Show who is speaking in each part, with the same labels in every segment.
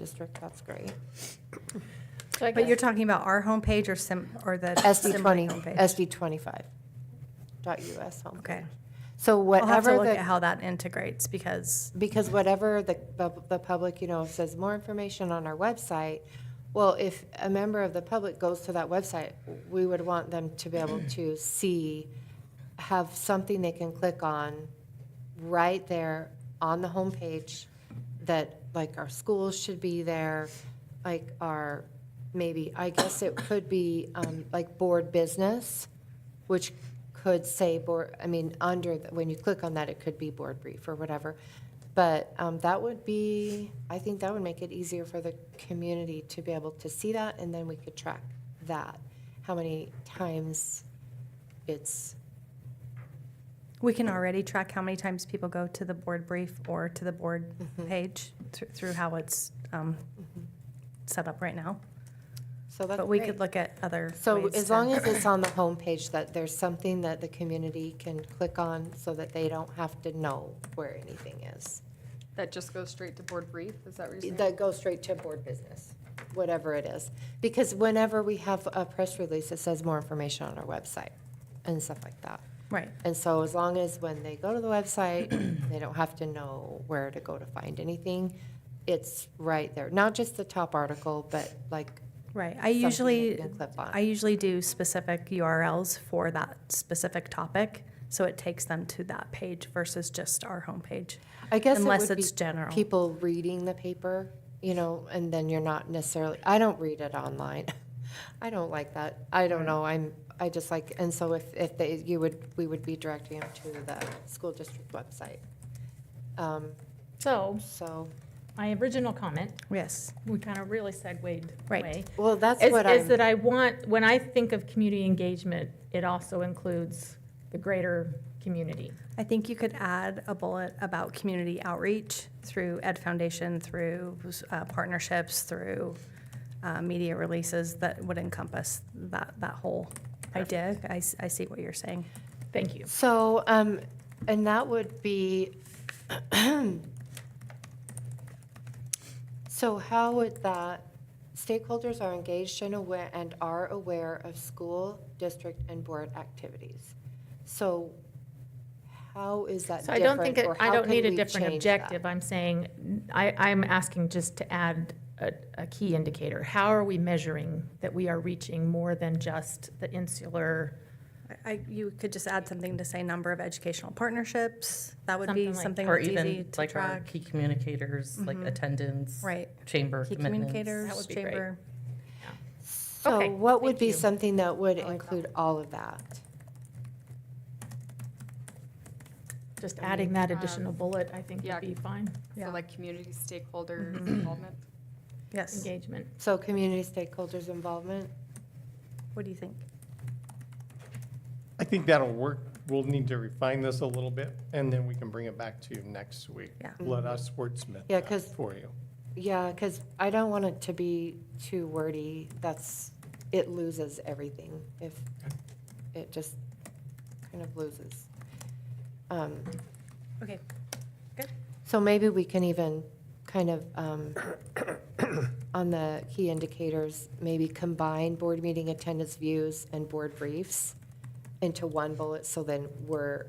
Speaker 1: district, that's great.
Speaker 2: So I
Speaker 3: But you're
Speaker 2: guess,
Speaker 3: talking about our homepage or sim, or the
Speaker 1: SD
Speaker 3: Assembly
Speaker 1: twenty,
Speaker 3: homepage?
Speaker 1: SD twenty-five dot US homepage.
Speaker 3: Okay.
Speaker 1: So
Speaker 3: I'll have to
Speaker 1: whatever
Speaker 3: look at
Speaker 1: the,
Speaker 3: how that integrates because,
Speaker 1: because whatever the, the, the public, you know, says more information on our website, well, if a member of the public goes to that website, we would want them to be able to see, have something they can click on right there on the homepage that like our schools should be there, like our, maybe, I guess it could be um, like board business, which could say board, I mean, under, the- when you click on that, it could be board brief or whatever. But um, that would be, I think that would make it easier for the community to be able to see that and then we could track that. How many times it's,
Speaker 3: we can already track how many times people go to the board brief or to the board
Speaker 1: Mm-hmm.
Speaker 3: page thr- through how it's um, set up right now.
Speaker 1: so Mm-hmm. that's
Speaker 3: But we
Speaker 1: great.
Speaker 3: could look at other
Speaker 1: So
Speaker 3: ways
Speaker 1: as
Speaker 3: to-
Speaker 1: long as it's on the homepage, that there's something that the community can click on so that they don't have to know where anything is.
Speaker 2: that just goes straight to board brief, is that what you're saying?
Speaker 1: That goes straight to board business, whatever it is. Because whenever we have a press release, it says more information on our website and stuff like that.
Speaker 3: Right,
Speaker 1: And so as long as when they go to the website, they don't have to know where to go to find anything, it's right there. Not just the top article, but like
Speaker 3: right. I
Speaker 1: something
Speaker 3: usually,
Speaker 1: you can clip on.
Speaker 3: I usually do specific URLs for that specific topic, so it takes them to that page versus just our homepage.
Speaker 1: I guess it
Speaker 3: Unless
Speaker 1: would be
Speaker 3: it's general.
Speaker 1: People reading the paper, you know, and then you're not necessarily. I don't read it online. I don't like that. I
Speaker 3: Mm.
Speaker 1: don't know. I'm. I just like. And so if if they, you would, we would be directing them to the school district website. Um,
Speaker 4: So,
Speaker 1: so
Speaker 4: my original comment,
Speaker 3: Yes,
Speaker 4: we kind of really segued
Speaker 3: Right.
Speaker 4: away.
Speaker 1: well, that's
Speaker 4: Is,
Speaker 1: what
Speaker 4: is
Speaker 1: I'm.
Speaker 4: that I want, when I think of community engagement, it also includes the greater community.
Speaker 3: I think you could add a bullet about community outreach through Ed Foundation, through uh, partnerships, through uh, media releases that would encompass that, that whole idea. I, s- I see what you're saying.
Speaker 4: Thank you.
Speaker 1: So, um, and that would be, so how would that, stakeholders are engaged and aware, and are aware of school, district, and board activities. So how is that
Speaker 4: So I don't think,
Speaker 1: different,
Speaker 4: it-
Speaker 1: or
Speaker 4: I
Speaker 1: how
Speaker 4: don't
Speaker 1: can
Speaker 4: need a
Speaker 1: we
Speaker 4: different
Speaker 1: change that?
Speaker 4: objective. I'm saying, I, I'm asking just to add a, a key indicator. How are we measuring that we are reaching more than just the insular?
Speaker 3: I, you could just add something to say number of educational partnerships. That would
Speaker 4: Something
Speaker 3: be
Speaker 4: like-
Speaker 3: something
Speaker 5: Or
Speaker 3: that's easy
Speaker 5: even
Speaker 3: to
Speaker 5: like our
Speaker 3: track. Mm-hmm.
Speaker 5: key communicators, like attendance,
Speaker 3: Right.
Speaker 5: chamber
Speaker 3: Key
Speaker 5: commitments.
Speaker 3: communicators,
Speaker 5: That would be great.
Speaker 3: chamber.
Speaker 1: So
Speaker 4: Okay,
Speaker 1: what would
Speaker 4: thank
Speaker 1: be
Speaker 4: you.
Speaker 1: something that would include all of that?
Speaker 4: Just adding that
Speaker 2: Um,
Speaker 4: additional bullet, I think
Speaker 2: yeah.
Speaker 4: would be fine.
Speaker 3: Yeah.
Speaker 2: So like community stakeholder involvement?
Speaker 3: Yes.
Speaker 4: Engagement.
Speaker 1: So community stakeholders' involvement?
Speaker 3: What do you think?
Speaker 6: I think that'll work. We'll need to refine this a little bit, and then we can bring it back to you next week.
Speaker 3: Yeah.
Speaker 6: Let us wordsmith
Speaker 1: Yeah,
Speaker 6: that
Speaker 1: 'cause-
Speaker 6: for you.
Speaker 1: Yeah, because I don't want it to be too wordy. That's, it loses everything if, it just kind of loses. Um,
Speaker 3: Okay.
Speaker 1: So maybe we can even kind of, um, on the key indicators, maybe combine board meeting attendance views and board briefs into one bullet, so then we're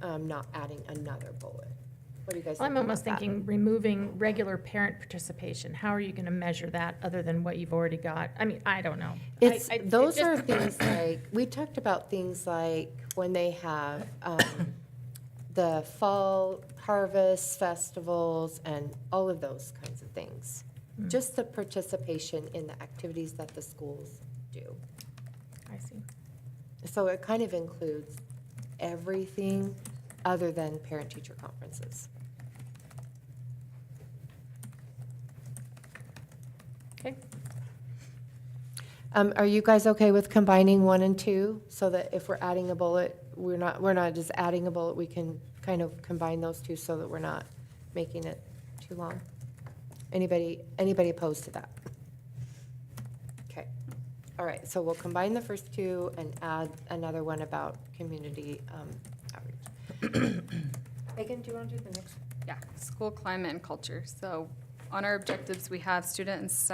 Speaker 1: um, not adding another bullet. What do you guys think
Speaker 4: Well, I'm
Speaker 1: about
Speaker 4: almost
Speaker 1: that?
Speaker 4: thinking removing regular parent participation. How are you going to measure that other than what you've already got? I mean, I don't know. I-
Speaker 1: It's,
Speaker 4: I- it
Speaker 1: those
Speaker 4: just-
Speaker 1: are things like, we talked about things like when they have um, the fall harvest festivals and all of those kinds of things.
Speaker 4: Mm.
Speaker 1: Just the participation in the activities that the schools do.
Speaker 4: I see.
Speaker 1: So it kind of includes everything other than parent-teacher conferences.
Speaker 4: Okay.
Speaker 1: Um, Are you guys okay with combining one and two, so that if we're adding a bullet, we're not, we're not just adding a bullet, we can kind of combine those two so that we're not making it too long? Anybody, anybody opposed to that? Okay, all right, so we'll combine the first two and add another one about community um, outreach. Megan, do you want to do the next?
Speaker 2: Yeah, school climate and culture. So on our objectives, we have student and staff